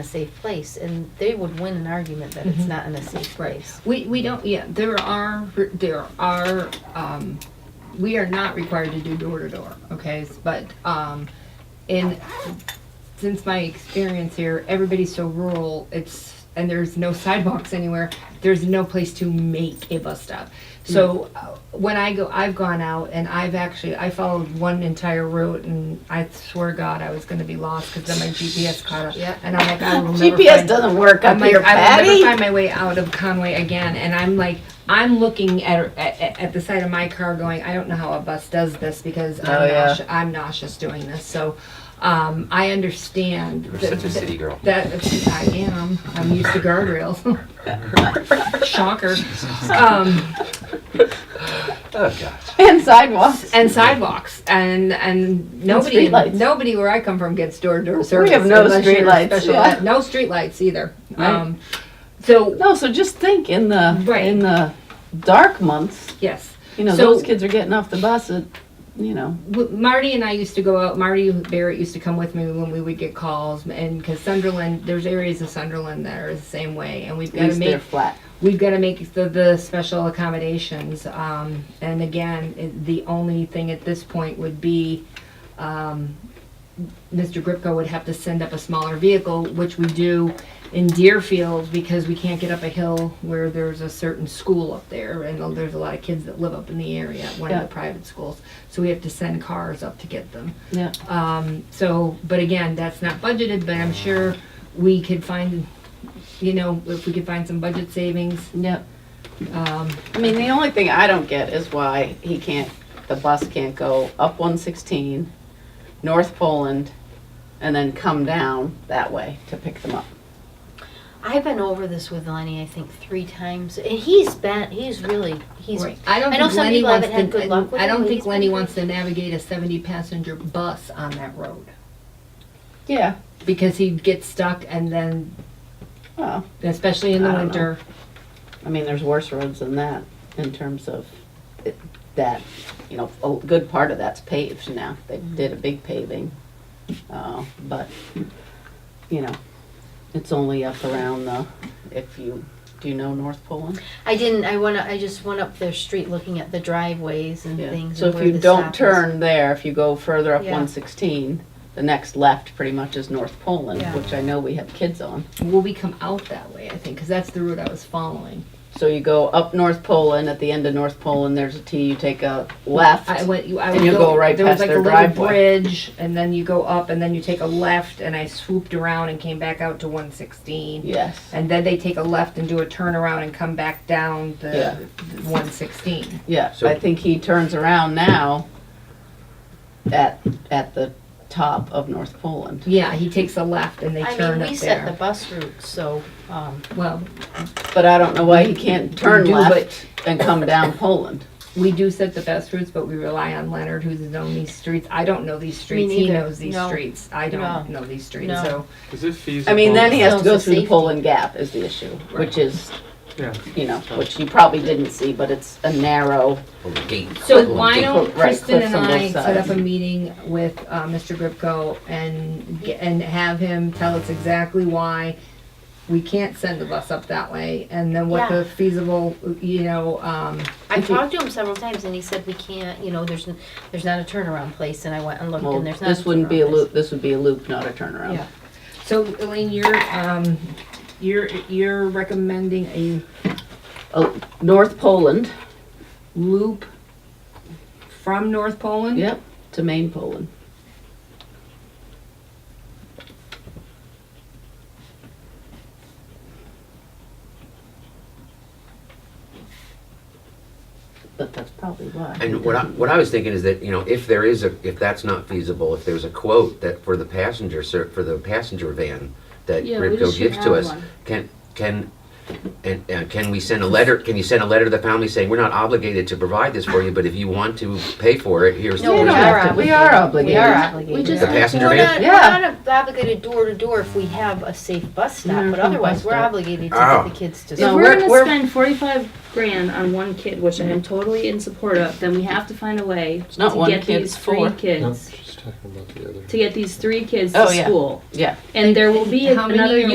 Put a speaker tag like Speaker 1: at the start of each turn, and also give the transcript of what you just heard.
Speaker 1: a safe place, and they would win an argument that it's
Speaker 2: Mhm.
Speaker 1: not in a safe place.
Speaker 3: We, we don't, yeah, there are, there are, um, we are not required to do door to door, okay? But, um, in, since my experience here, everybody's so rural, it's, and there's no sidewalks anywhere, there's no place to make a bus stop. So uh, when I go, I've gone out and I've actually, I followed one entire route and I swear to God, I was gonna be lost because then my GPS caught up.
Speaker 1: Yep.
Speaker 3: And I'm like, I will never
Speaker 2: GPS
Speaker 3: find-
Speaker 2: doesn't work
Speaker 3: I'm
Speaker 2: up
Speaker 3: like,
Speaker 2: here,
Speaker 3: I will never
Speaker 2: Patty.
Speaker 3: find my way out of Conway again. And I'm like, I'm looking at, at, at the side of my car going, I don't know how a bus does this because
Speaker 2: Oh,
Speaker 3: I'm,
Speaker 2: yeah.
Speaker 3: nauseous, I'm nauseous doing this. So um, I understand.
Speaker 4: You're
Speaker 3: that-
Speaker 4: such a city girl.
Speaker 3: That I am. I'm used to guardrails. Shocker. Um,
Speaker 4: Oh gosh.
Speaker 2: And sidewalks.
Speaker 3: and sidewalks and and nobody
Speaker 2: streetlights.
Speaker 3: nobody where I come from gets door to door service.
Speaker 2: have no
Speaker 3: unless you're
Speaker 2: streetlights,
Speaker 3: special
Speaker 2: yeah.
Speaker 3: ed- No streetlights either.
Speaker 2: Right.
Speaker 3: Um, so
Speaker 2: No, so just think in the,
Speaker 3: Right.
Speaker 2: in the dark months,
Speaker 3: yes.
Speaker 2: you know,
Speaker 3: So-
Speaker 2: those kids are getting off the bus at, you know.
Speaker 3: w- Marty and I used to go out. Marty Barrett used to come with me when we would get calls, and because Sunderland, there's areas of Sunderland that are the same way, and we've
Speaker 2: At
Speaker 3: got to
Speaker 2: least they're
Speaker 3: make
Speaker 2: flat.
Speaker 3: we've got to make the, the special accommodations. Um, and again, it, the only thing at this point would be um, Mr. Gripko would have to send up a smaller vehicle, which we do in Deerfield because we can't get up a hill where there's a certain school up there, and there's a lot of kids that live up in the area, one of
Speaker 2: Yeah.
Speaker 3: the private schools. So we have to send cars up to get them.
Speaker 2: Yeah.
Speaker 3: Um, so, but again, that's not budgeted, but I'm sure we could find, you know, if we could find some budget savings,
Speaker 2: Yep.
Speaker 3: um,
Speaker 2: I mean, the only thing I don't get is why he can't, the bus can't go up one sixteen, North Poland, and then come down that way to pick them up.
Speaker 1: I've been over this with Lenny, I think, three times, and he's been, he's really, he's,
Speaker 3: right. I don't
Speaker 1: I know
Speaker 3: think
Speaker 1: some
Speaker 3: Lenny
Speaker 1: people
Speaker 3: wants
Speaker 1: haven't had good luck
Speaker 3: to,
Speaker 1: with
Speaker 3: I
Speaker 1: it,
Speaker 3: don't
Speaker 1: but
Speaker 3: think
Speaker 1: he's
Speaker 3: Lenny
Speaker 1: been
Speaker 3: wants to navigate a seventy passenger bus on that road.
Speaker 2: Yeah.
Speaker 3: Because he'd get stuck and then,
Speaker 2: Well,
Speaker 3: especially in the
Speaker 2: I don't know.
Speaker 3: winter,
Speaker 2: I mean, there's worse roads than that in terms of it- that, you know, a good part of that's paved now. They
Speaker 1: Mm-hmm.
Speaker 2: did a big paving. Uh, but, you know, it's only up around the, if you, do you know North Poland?
Speaker 1: I didn't, I went, I just went up their street looking at the driveways and things.
Speaker 2: So
Speaker 1: and
Speaker 2: if
Speaker 1: where
Speaker 2: you
Speaker 1: the
Speaker 2: don't
Speaker 1: stop is.
Speaker 2: turn there, if you go further up
Speaker 1: Yeah.
Speaker 2: one sixteen, the next left pretty much is North Poland,
Speaker 1: Yeah.
Speaker 2: which I know we have kids on.
Speaker 3: will we come out that way, I think, cause that's the route I was following.
Speaker 2: So you go up North Poland, at the end of North Poland, there's a T, you take a left.
Speaker 3: I went, you- I
Speaker 2: And
Speaker 3: would
Speaker 2: you'll go right
Speaker 3: there was
Speaker 2: past
Speaker 3: like
Speaker 2: their
Speaker 3: a little
Speaker 2: driveway.
Speaker 3: Bridge, and then you go up, and then you take a left, and I swooped around and came back out to one sixteen.
Speaker 2: Yes,
Speaker 3: And then they take a left and do a turnaround and come back down
Speaker 2: Yeah.
Speaker 3: the one sixteen.
Speaker 2: yeah,
Speaker 4: So-
Speaker 2: I think he turns around now at, at the top of North Poland.
Speaker 3: Yeah, he takes a left and they
Speaker 1: I
Speaker 3: turn
Speaker 1: mean, we
Speaker 3: up
Speaker 1: set the
Speaker 3: there.
Speaker 1: bus route, so, um,
Speaker 3: Well,
Speaker 2: But I don't know why he can't turn
Speaker 3: do,
Speaker 2: left and come down Poland.
Speaker 3: we do set the best routes, but we rely on Leonard who's known these streets. I don't know these streets. He
Speaker 1: neither.
Speaker 3: knows these
Speaker 1: No.
Speaker 3: streets. I don't know these streets,
Speaker 1: No.
Speaker 3: so.
Speaker 5: Is it feasible?
Speaker 2: I mean, then he has to
Speaker 1: Still
Speaker 2: go
Speaker 1: it's a
Speaker 2: through the
Speaker 1: safety.
Speaker 2: Poland Gap is the issue, which is
Speaker 5: Yeah.
Speaker 2: you know, which you probably didn't see, but it's a narrow.
Speaker 4: Over the gate.
Speaker 3: So why
Speaker 2: Right,
Speaker 3: don't Kristen
Speaker 2: cliffs
Speaker 3: and
Speaker 2: on both
Speaker 3: I set
Speaker 2: sides.
Speaker 3: up a meeting with uh, Mr. Gripko and, ge- and have him tell us exactly why we can't send the bus up that way, and then what
Speaker 1: Yeah.
Speaker 3: the feasible, you know, um,
Speaker 1: I've
Speaker 2: If you-
Speaker 1: talked to him several times, and he said we can't, you know, there's, n- there's not a turnaround place, and I went and looked,
Speaker 2: Well,
Speaker 1: and there's not. a
Speaker 2: this wouldn't be a
Speaker 1: turnaround place.
Speaker 2: loop, this would be a loop, not a turnaround.
Speaker 1: Yeah.
Speaker 3: so Elaine, you're, um, you're, you're recommending a
Speaker 2: Oh, North Poland,
Speaker 3: loop from North Poland?
Speaker 2: yep, to Main Poland. But that's probably why.
Speaker 4: And what I, what I was thinking is that, you know, if there is a, if that's not feasible, if there's a quote that for the passenger, ser- for the passenger van that
Speaker 6: Yeah, we
Speaker 4: Ripco
Speaker 6: just should
Speaker 4: gives to
Speaker 6: add
Speaker 4: us,
Speaker 6: one.
Speaker 4: can, can, and, and can we send a letter, can you send a letter to the family saying, we're not obligated to provide this for you, but if you want to pay for it, here's.
Speaker 1: No,
Speaker 4: the
Speaker 1: we
Speaker 4: here's
Speaker 1: are
Speaker 4: the-
Speaker 2: We are
Speaker 1: We are
Speaker 2: obligated.
Speaker 1: obligated.
Speaker 6: We just
Speaker 4: The passenger
Speaker 1: We're not,
Speaker 4: van?
Speaker 2: Yeah.
Speaker 1: we're not obligated door to door if we have a safe bus stop,
Speaker 2: We're
Speaker 1: but
Speaker 2: from
Speaker 1: otherwise,
Speaker 2: bus
Speaker 1: we're
Speaker 2: stop.
Speaker 1: obligated to
Speaker 4: Oh.
Speaker 1: get the kids to
Speaker 6: If
Speaker 2: No,
Speaker 1: school.
Speaker 6: we're,
Speaker 2: we're-
Speaker 6: gonna
Speaker 2: we're-
Speaker 6: spend forty-five grand on one kid, which I am totally in support of, then we have to find a way
Speaker 2: not
Speaker 6: to
Speaker 2: one
Speaker 6: get
Speaker 2: kid, Mm-hmm.
Speaker 6: these
Speaker 2: it's
Speaker 6: three
Speaker 2: four.
Speaker 5: No,
Speaker 6: kids
Speaker 5: she's talking about the other.
Speaker 6: to get these three kids
Speaker 2: Oh,
Speaker 6: to
Speaker 2: yeah.
Speaker 6: school.
Speaker 2: Yeah.
Speaker 6: And there will be
Speaker 3: How many
Speaker 6: another
Speaker 3: are